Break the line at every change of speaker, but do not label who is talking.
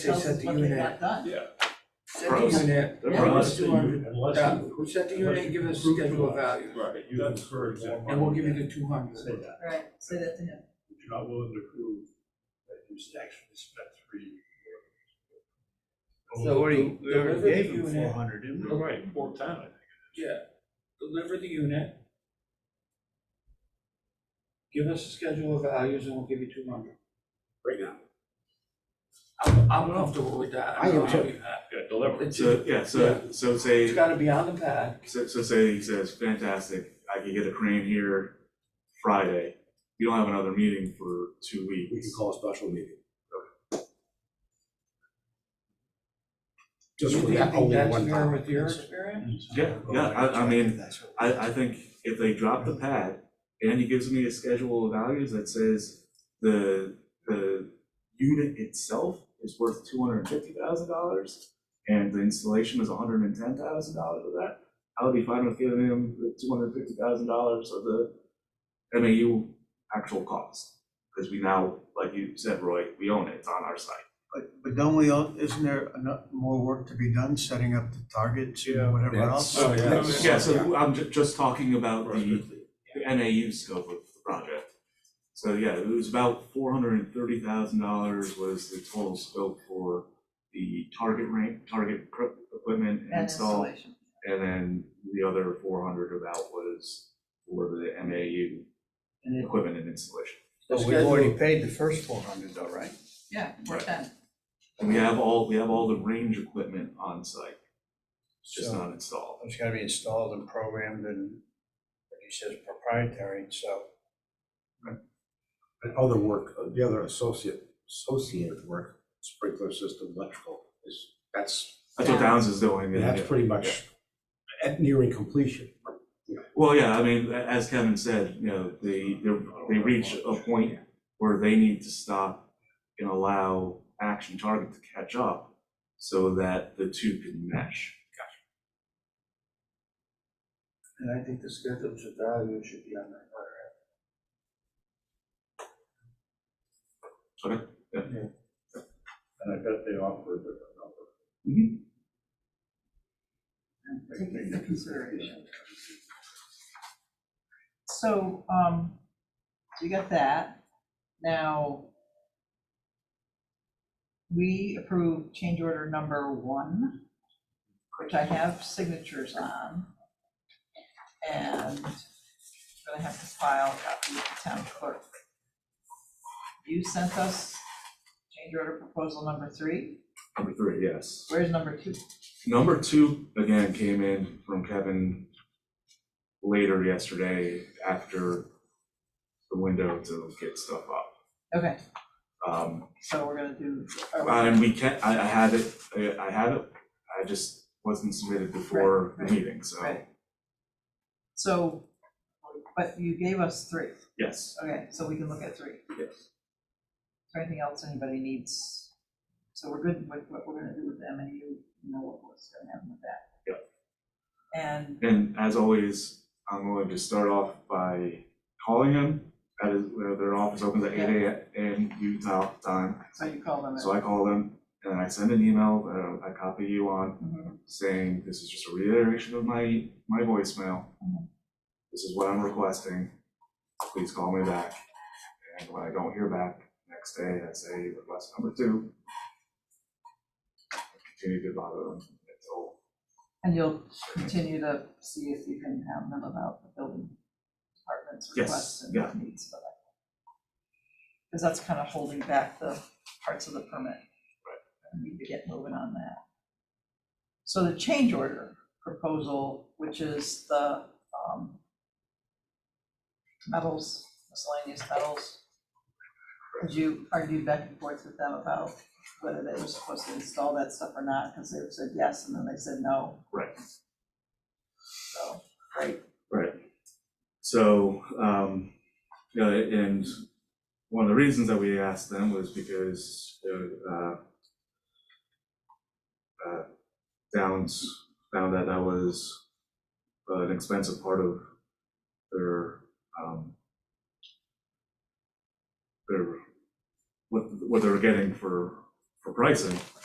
They
tells
set
us
the
what they
unit,
got done.
Yeah.
set the
Gross.
unit,
The
now
gross
let's
Unless
do
you,
our,
unless
yeah,
you.
we set the
unless
unit,
you
give us
prove to
schedule of
us
value,
Right.
You've incurred more money.
and we'll give you
than-
the two hundred.
Say that.
Right, say that to him.
If you're not willing to prove that you actually spent three.
So what do you, we already
Deliver the
gave him
unit.
four hundred, didn't we?
Right, four times.
Yeah, deliver the unit. Give us a schedule of values and we'll give you two hundred.
right now.
I'm, I'm comfortable with that.
I am too.
Yeah, deliver.
It's,
So, yeah, so, so
it's
say,
gotta be on the pad,
so, so say he says, fantastic, I can get a crane here Friday. You don't have another meeting for two
We can
weeks.
call a special meeting.
do
Just
you
for
think
that only
that's
one
fair with your
time.
experience?
Yeah, yeah, I, I mean, I, I think if they drop the pad and he gives me a schedule of values that says the, the unit itself is worth two hundred and fifty thousand dollars and the installation is hundred and ten thousand dollars of that, I would be fine with giving him the two hundred and fifty thousand dollars of the MAU actual cost. Cause we now, like you said, Roy, we own it, it's on our site.
But, but don't we all, isn't there enough more work to be done, setting up the targets
Yeah.
and whatever else?
That's-
yeah.
that's-
Yeah, so I'm ju- just talking about the
Prospectly.
the NAU scope of the project. So yeah, it was about four hundred and thirty thousand dollars was the total scope for the target rank, target equip- equipment and
And
install.
installation.
And then the other four hundred about was for the MAU
And it-
equipment and installation.
But we've
schedule-
already paid the first four hundred though, right?
Yeah, we're
Right.
done.
And we have all, we have all the range equipment on site, it's just
So-
not installed.
It's gotta be installed and programmed and, like you said, proprietary, so.
And other work, uh, the other associate, associated work, sprinkler system, electrical, is, that's,
That's what Downs is doing. and-
that's pretty much at nearing completion.
Well, yeah, I mean, a- as Kevin said, you know, they, they're- they reach a point where they need to stop and allow action target to catch up so that the two can mesh.
And I think the schedules of values should be on that letter.
And I bet they offer a different number.
Take it into consideration. So, um, we got that. Now, we approve change order number one, which I have signatures on. And I'm gonna have to file a copy with the town clerk. You sent us change order proposal number three.
Number three, yes.
Where's number two?
Number two, again, came in from Kevin later yesterday after the window to get stuff up.
Okay,
Um,
so we're gonna do. are we-
Um, we can, I, I have it, I, I have it, I just wasn't submitted before the
right,
meeting, so,
right. So, but you gave us three,
yes.
okay, so we can look at three. Yes. Is there anything else anybody needs? So we're good with what we're gonna do with M and U, you know what was gonna happen with that. Yep. And,
And as always, I'm going to start off by calling them, at his- where their office opens at eight A AM Utah time.
so you call them.
So I call them, and I send an email that I copy you on,
Mhm.
saying, this is just a reiteration of my, my voicemail.
Mhm.
This is what I'm requesting, please call me back. And when I don't hear back, next day I say request number two. I Continue to bother them until,
And you'll continue to see if you can have them about the building department's
Yes,
requests and
yeah.
needs for that. Because that's kind of holding back the parts of the permit. Right. We need to get moving on that. So the change order proposal, which is the um, metals, miscellaneous metals. Because you argued back and forth with them about whether they were supposed to install that stuff or not, because they said yes, and then they said no.
right.
So, right,
Right. So, um, you know, and one of the reasons that we asked them was because, you know, uh, uh, Downs found that that was an expensive part of their, um, their, what, what they were getting for for pricing,